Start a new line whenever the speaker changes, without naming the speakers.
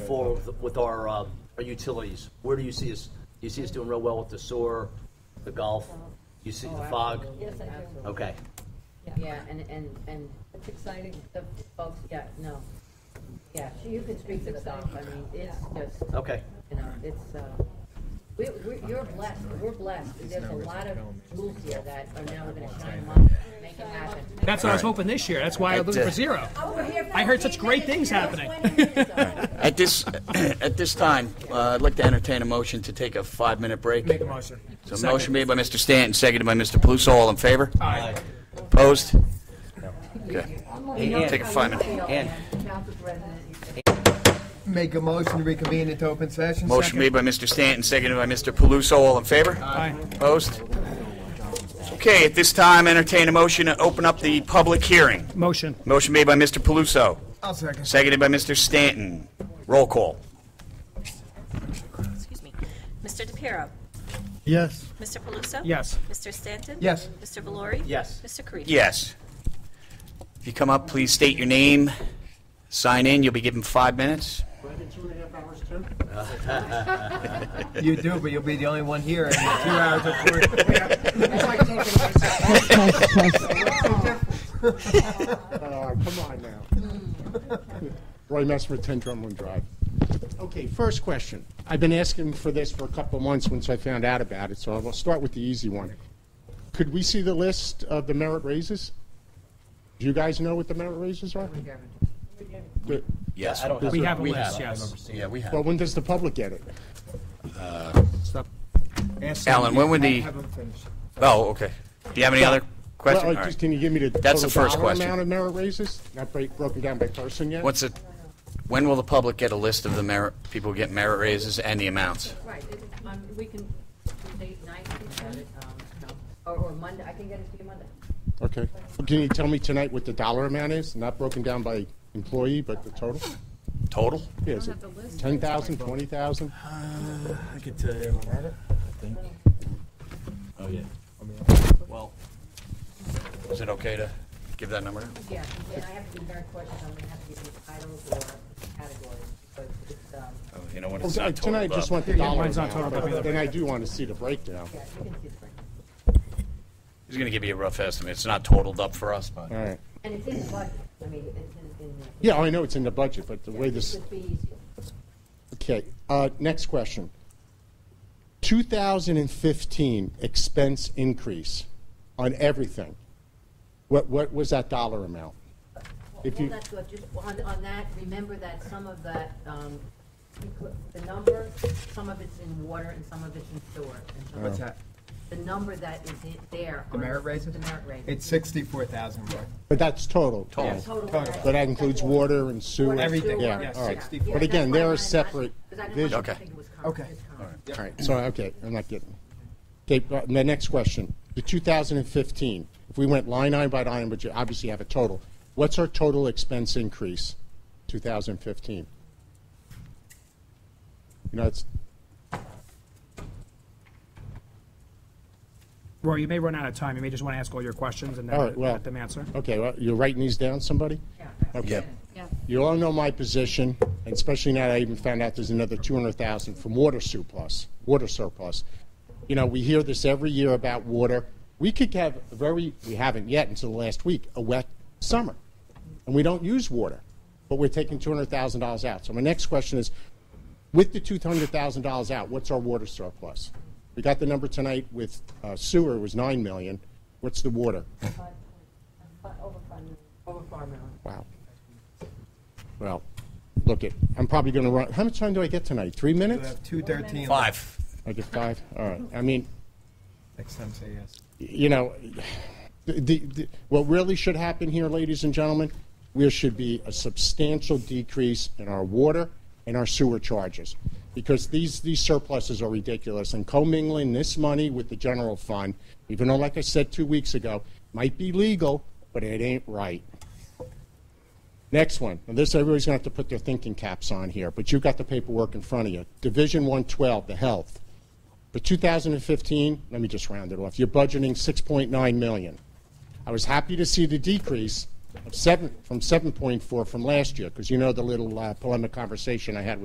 forward with, with our, uh, our utilities? Where do you see us, you see us doing real well with the sewer, the golf? You see the fog?
Yes, I do.
Okay.
Yeah, and, and, and
It's exciting.
the folks, yeah, no. Yeah, you can speak to the golf, I mean, it's just,
Oh.
Okay.
you know, it's, uh, we, we, you're blessed, we're blessed. There's a lot of rules here that are now we're gonna shine them up, make it happen.
That's what I was hoping this year. That's why I was looking for zero. I heard such great things happening.
At this, at this time, uh, I'd like to entertain a motion to take a five-minute break.
Make a motion.
So motion made by Mr. Stanton, seconded by Mr. Paluso. All in favor? Opposed? Okay. Take a five-minute.
Make a motion to reconvene into open session.
Motion made by Mr. Stanton, seconded by Mr. Paluso. All in favor?
Aye.
Opposed? Okay, at this time, entertain a motion to open up the public hearing.
Motion.
Motion made by Mr. Paluso,
I'll second.
seconded by Mr. Stanton. Roll call.
Excuse me. Mr. DePiero?
Yes.
Mr. Paluso?
Yes.
Mr. Stanton?
Yes.
Mr. Valori?
Yes.
Mr. Karifi?
Yes. If you come up, please state your name, sign in, you'll be given five minutes.
You do, but you'll be the only one here in two hours of court.
Oh, come on now. Roy Messmer, 10 Drumlin Drive. Okay, first question. I've been asking for this for a couple of months once I found out about it, so I'll start with the easy one. Could we see the list of the merit raises? Do you guys know what the merit raises are? The-
Yes.
We have a
We
list,
have.
yes.
Yeah, we
Well,
have.
when does the public get it?
Alan, when would the,
Have them finish.
oh, okay. Do you have any other
Well,
question? All
like,
right.
just Can you give me the
That's the
total
first
dollar
question.
amount of merit raises? Not break- broken down by person yet?
What's it, when will the public get a list of the merit, people who get merit raises and the amounts?
Right, it- um, we can, date night, we can, um, or, or Monday, I can get it to you Monday.
Okay. Can you tell me tonight what the dollar amount is? Not broken down by employee, but the total?
Total?
Yeah, is it 10,000, 20,000?
I could tell you. Oh, yeah.
Well, is it okay to give that number?
Yeah, and I have to be very cautious, I'm gonna have to give you titles or categories, but it's, um,
Oh, You know what,
Oh,
it's not totaled
Tonight, I just
up.
want the dollar
mine's not totaled
amount,
up either.
but then I do want to see the breakdown.
yeah, you can see it right.
He's going to give you a rough estimate. It's not totaled up for us, but.
All right.
And it's in the budget, I mean, it's in, in the.
Yeah, I know it's in the budget, but the way this,
It would be easier.
okay. Uh, Next question. 2015 expense increase on everything. What, what was that dollar amount? If
Well,
you,
that's what, just on, on that, remember that some of that, um, the number, some of it's in water and some of it's in sewer. and some of
What's
Oh.
it's-
that?
The number that is in there.
The
on-
merit raises?
The merit raises.
It's sixty-four thousand, Roy.
but that's total.
Total.
Total.
total.
merit-
But that includes water and sewer.
Everything,
Yeah,
yes,
all right.
64.
But again,
there
they're a separate vision.
Okay.
Okay.
All right, so, okay, I'm not getting. Okay, uh, my next question, the 2015, if we went line item by line, but you obviously have a total, what's our total expense increase, 2015? You know, it's,
Roy, you may run out of time. You may just want to ask all your questions and then
All right, well-
let them answer.
okay, well, you're writing these down, somebody? Okay. You all know my position, and especially now that I even found out there's another 200,000 from water surplus, water surplus. You know, we hear this every year about water. We could have a very, we haven't yet until last week, a wet summer, and we don't use water, but we're taking $200,000 out. So my next question is, with the $200,000 out, what's our water surplus? We got the number tonight with uh, sewer was 9 million. What's the water?
Over five, million. over five million.
Wow. Well, look it, I'm probably going to run, how much time do I get tonight? Three
We
minutes?
have two thirteen.
Five.
I get five? All right. I mean,
Next time, say yes.
you know, the, the, what really should happen here, ladies and gentlemen, there should be a substantial decrease in our water and our sewer charges because these, these surpluses are ridiculous. And commingling this money with the general fund, even though, like I said two weeks ago, might be legal, but it ain't right. Next one, and this everybody's going to have to put their thinking caps on here, but you've got the paperwork in front of you. Division 112, the health. For 2015, let me just round it off, you're budgeting 6.9 million. I was happy to see the decrease of seven, from 7.4 from last year, because you know the little uh, polemic conversation I had with